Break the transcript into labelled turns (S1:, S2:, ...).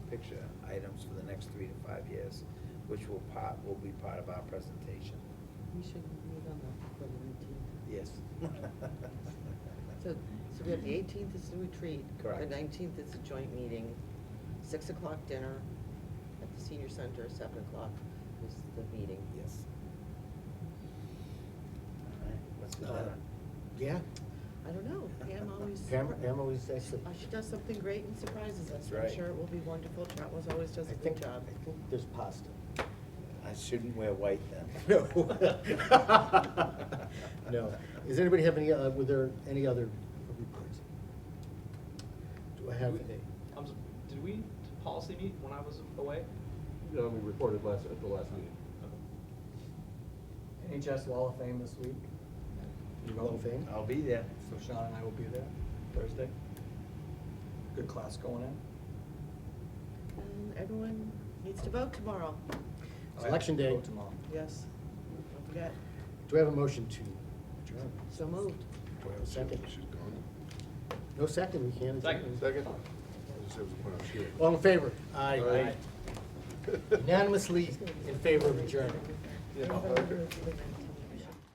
S1: items for the next three to five years, which will part, will be part of our presentation.
S2: We should meet on the, for the nineteenth.
S1: Yes.
S2: So, so we have the eighteenth is the retreat. The
S1: Correct.
S2: nineteenth is a joint meeting, six o'clock dinner at the senior center, seven o'clock is the meeting.
S1: Yes. All right, what's the
S3: Uh,
S1: matter?
S3: Yeah,
S2: I don't know, Pam always.
S3: Pam, Pam always actually.
S2: Uh, She does something great and surprises us.
S1: That's
S2: I'm
S1: right.
S2: sure it will be wonderful. Chatwell's always does
S3: I
S2: a good
S3: think-
S2: job.
S3: I think there's pasta.
S1: I shouldn't wear white then.
S3: No. Does anybody have any, uh, were there any other reports? Do I have any?
S4: I'm, s- did we policy meet when I was away?
S5: No, we reported last, at the last meeting.
S6: NHS Wall of Fame this week.
S3: You Hall of Fame?
S1: I'll be there.
S6: So Sean and I will be there Thursday. Good class going in.
S2: And everyone needs to vote tomorrow.
S3: It's election day.
S6: Go Tomorrow.
S2: Yes, don't forget.
S3: Do I have a motion to adjourn?
S2: So moved.
S7: Do I have a
S3: Second.
S7: She's gone.
S3: No second, we can't. adjourn.
S4: Second.
S7: Second? I just have to put on shield.
S3: All in favor? Aye.
S4: Aye.
S3: Unanimously in favor of adjournment.
S7: Yeah.
S2: Everybody voted.